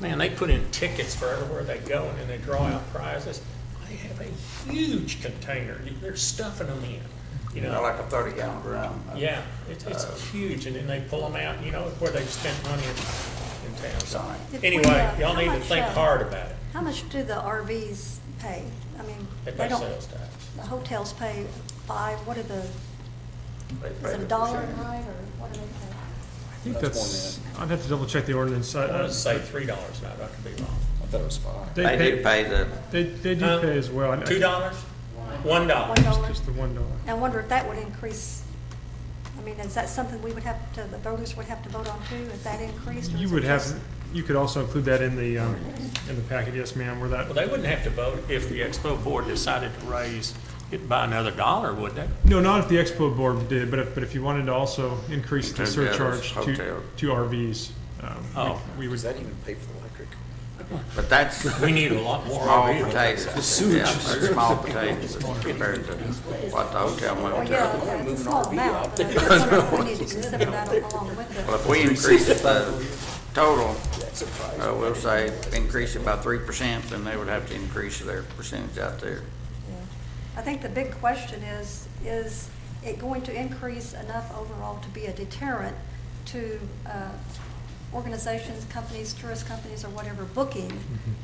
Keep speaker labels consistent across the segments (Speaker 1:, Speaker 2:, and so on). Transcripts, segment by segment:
Speaker 1: Man, they put in tickets for everywhere they go, and then they draw out prizes. They have a huge container, they're stuffing them in, you
Speaker 2: you know,
Speaker 1: know?
Speaker 2: like a thirty gallon drum.
Speaker 1: Yeah, it's, it's huge, and then they pull them out, you know, where they've spent money in, in town. So,
Speaker 2: Sign.
Speaker 3: If we,
Speaker 1: Anyway,
Speaker 3: uh,
Speaker 1: y'all
Speaker 3: how
Speaker 1: need to
Speaker 3: much,
Speaker 1: think
Speaker 3: uh,
Speaker 1: hard about it,
Speaker 3: How much do the RVs pay? I mean,
Speaker 1: if
Speaker 3: they
Speaker 1: they
Speaker 3: don't,
Speaker 1: sales tax.
Speaker 3: the hotels pay five, what are the,
Speaker 2: They pay
Speaker 3: is it a
Speaker 2: the
Speaker 3: dollar a
Speaker 2: percentage.
Speaker 3: night or what do they pay?
Speaker 4: I think
Speaker 5: That's
Speaker 4: that's, I'd have to double check the ordinance. Uh,
Speaker 1: I
Speaker 4: I-
Speaker 1: want to
Speaker 4: I-
Speaker 1: say three dollars now, but I could be wrong.
Speaker 5: I thought it was five.
Speaker 4: They
Speaker 2: They do
Speaker 4: pay,
Speaker 2: pay the,
Speaker 4: uh, they, they do
Speaker 1: Huh?
Speaker 4: pay as well. I- I-
Speaker 1: Um, Two dollars? One dollar.
Speaker 3: One
Speaker 4: It's
Speaker 3: dollar?
Speaker 4: just the one dollar.
Speaker 3: I wonder if that would increase, I mean, is that something we would have to, the voters would have to vote on too, if that increased? or
Speaker 4: You
Speaker 3: is it
Speaker 4: would have,
Speaker 3: just-
Speaker 4: you could also include that in the, um, in the packet, yes, ma'am, where
Speaker 1: Well,
Speaker 4: that,
Speaker 1: they wouldn't have to vote if the expo board decided to raise it by another dollar, would they?
Speaker 4: no, not if the expo board did, but if, but if you wanted to also increase the
Speaker 2: Include the others,
Speaker 4: surcharge to,
Speaker 2: hotel.
Speaker 4: to RVs, um, we-
Speaker 1: Oh.
Speaker 4: we would,
Speaker 5: Does that even pay for electric?
Speaker 2: but that's
Speaker 1: We need a lot more
Speaker 2: small
Speaker 1: RVs.
Speaker 2: potatoes. Yeah, they're small potatoes compared to what the hotel
Speaker 3: Well,
Speaker 2: went to.
Speaker 3: Oh, yeah, yeah, it's a small amount, but I just wonder if we need to consider that along with it.
Speaker 2: Well, if we increase the total, uh, we'll say increase it by three percent, then they would have to increase their percentage out there.
Speaker 3: Yeah. I think the big question is, is it going to increase enough overall to be a deterrent to uh, organizations, companies, tourist companies, or whatever, booking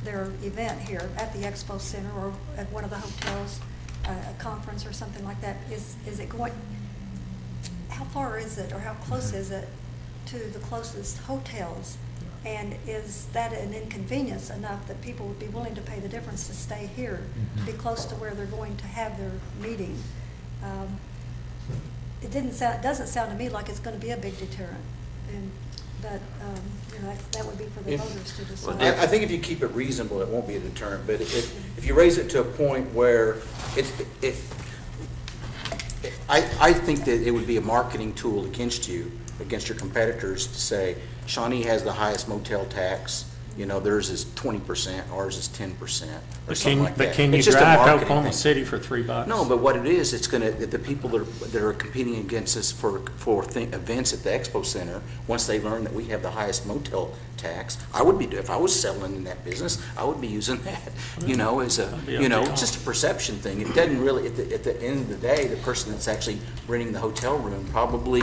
Speaker 3: their event here at the Expo Center or at one of the hotels, uh, a conference or something like that? Is, is it going, how far is it, or how close is it to the closest hotels? And is that an inconvenience enough that people would be willing to pay the difference to stay here, to be close to where they're going to have their meeting? Um, It didn't sound, doesn't sound to me like it's gonna be a big deterrent, and, but, um, you know, that's- that would be for the
Speaker 5: If-
Speaker 3: voters to
Speaker 2: Well,
Speaker 3: decide.
Speaker 5: I, I think if you keep it reasonable, it won't be a deterrent, but if, if you raise it to a point where it's, it, I, I think that it would be a marketing tool against you, against your competitors to say, Shawnee has the highest motel tax, you know, theirs is twenty percent, ours is ten percent, or
Speaker 1: But
Speaker 5: something
Speaker 1: can,
Speaker 5: like that.
Speaker 1: but can you
Speaker 5: It's just a
Speaker 1: drive to
Speaker 5: marketing
Speaker 1: Oklahoma
Speaker 5: thing.
Speaker 1: City for three bucks?
Speaker 5: No, but what it is, it's gonna, the the people that are, that are competing against us for, for thi- events at the expo center, once they learn that we have the highest motel tax, I would be, do- if I was selling in that business, I would be using that, you know, as a,
Speaker 1: be a
Speaker 5: you know,
Speaker 1: big
Speaker 5: it's just a perception thing. It doesn't really, at the, at the end of the day, the person that's actually renting the hotel room, probably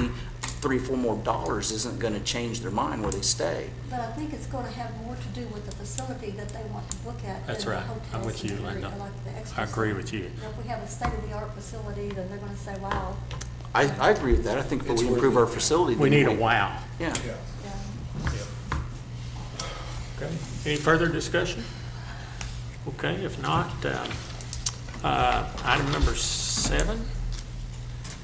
Speaker 5: three, four more dollars isn't gonna change their mind where they stay.
Speaker 3: But I think it's gonna have more to do with the facility that they want to look at than
Speaker 1: That's
Speaker 3: the
Speaker 1: right. I'm
Speaker 3: hotels
Speaker 1: with
Speaker 3: in
Speaker 1: you,
Speaker 3: the area,
Speaker 1: Linda.
Speaker 3: like the Expo
Speaker 1: I agree
Speaker 3: Center.
Speaker 1: with you.
Speaker 3: You know, If we have a state-of-the-art facility, then they're gonna say, wow,
Speaker 5: I, I agree with that. I think if we improve our facility.
Speaker 1: We
Speaker 5: then
Speaker 1: need a wow.
Speaker 5: Yeah.
Speaker 3: yeah.
Speaker 1: Okay. Any further discussion? Okay, if not, um, uh, item number seven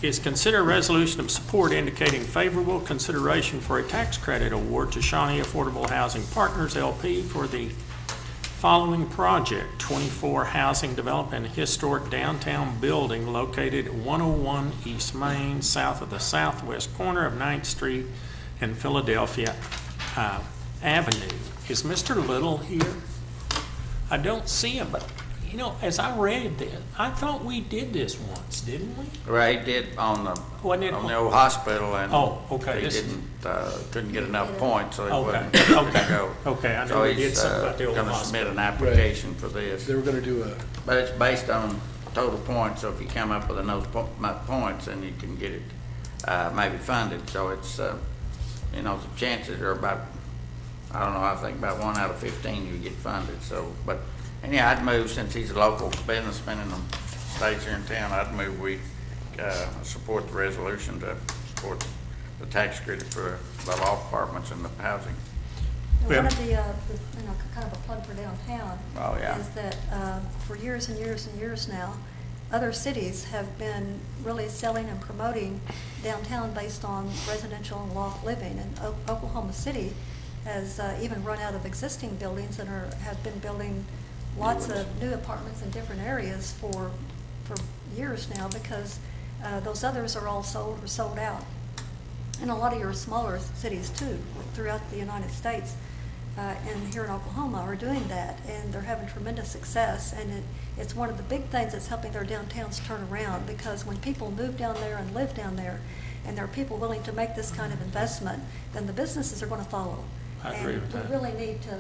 Speaker 1: is consider a resolution of support indicating favorable consideration for a tax credit award to Shawnee Affordable Housing Partners LP for the following project, 24 Housing Development Historic Downtown Building located at 101 East Main, south of the southwest corner of 9th Street and Philadelphia uh, Avenue. Is Mr. Little here? I don't see him, but, you know, as I read this, I thought we did this once, didn't we?
Speaker 2: Ray did on the,
Speaker 1: Wasn't it-
Speaker 2: on the old hospital and.
Speaker 1: Oh, okay,
Speaker 2: He
Speaker 1: this-
Speaker 2: didn't, uh, couldn't get enough points, so he
Speaker 1: Okay,
Speaker 2: wasn't able
Speaker 1: okay,
Speaker 2: to go.
Speaker 1: okay, I know
Speaker 2: So
Speaker 1: we did
Speaker 2: he's,
Speaker 1: something
Speaker 2: uh,
Speaker 1: about the old
Speaker 2: Gonna submit
Speaker 1: hospital.
Speaker 2: an application for this.
Speaker 6: They were gonna do a,
Speaker 2: But it's based on total points, so if you come up with enough po- amount of points, then you can get it, uh, maybe funded, so it's, uh, you know, the chances are about, I don't know, I think about one out of fifteen you get funded, so, but, and yeah, I'd move, since he's a local businessman and um, stays here in town, I'd move we, uh, support the resolution to support the tax credit for the law departments and the housing.
Speaker 3: And One
Speaker 1: Yeah.
Speaker 3: of the, uh, the- you know, kind of a plug for downtown.
Speaker 2: Oh, yeah.
Speaker 3: Is that uh, for years and years and years now, other cities have been really selling and promoting downtown based on residential and loft living. And O- Oklahoma City has uh, even run out of existing buildings and are, have been building lots of new apartments in different areas for, for years now because uh, those others are all sold or sold out and a lot of your smaller cities too, throughout the United States, uh, and here in Oklahoma are doing that, and they're having tremendous success, and it, it's one of the big things that's helping their downtowns turn around, because when people move down there and live down there, and there are people willing to make this kind of investment, then the businesses are gonna follow.
Speaker 1: I agree with that.
Speaker 3: And we really need to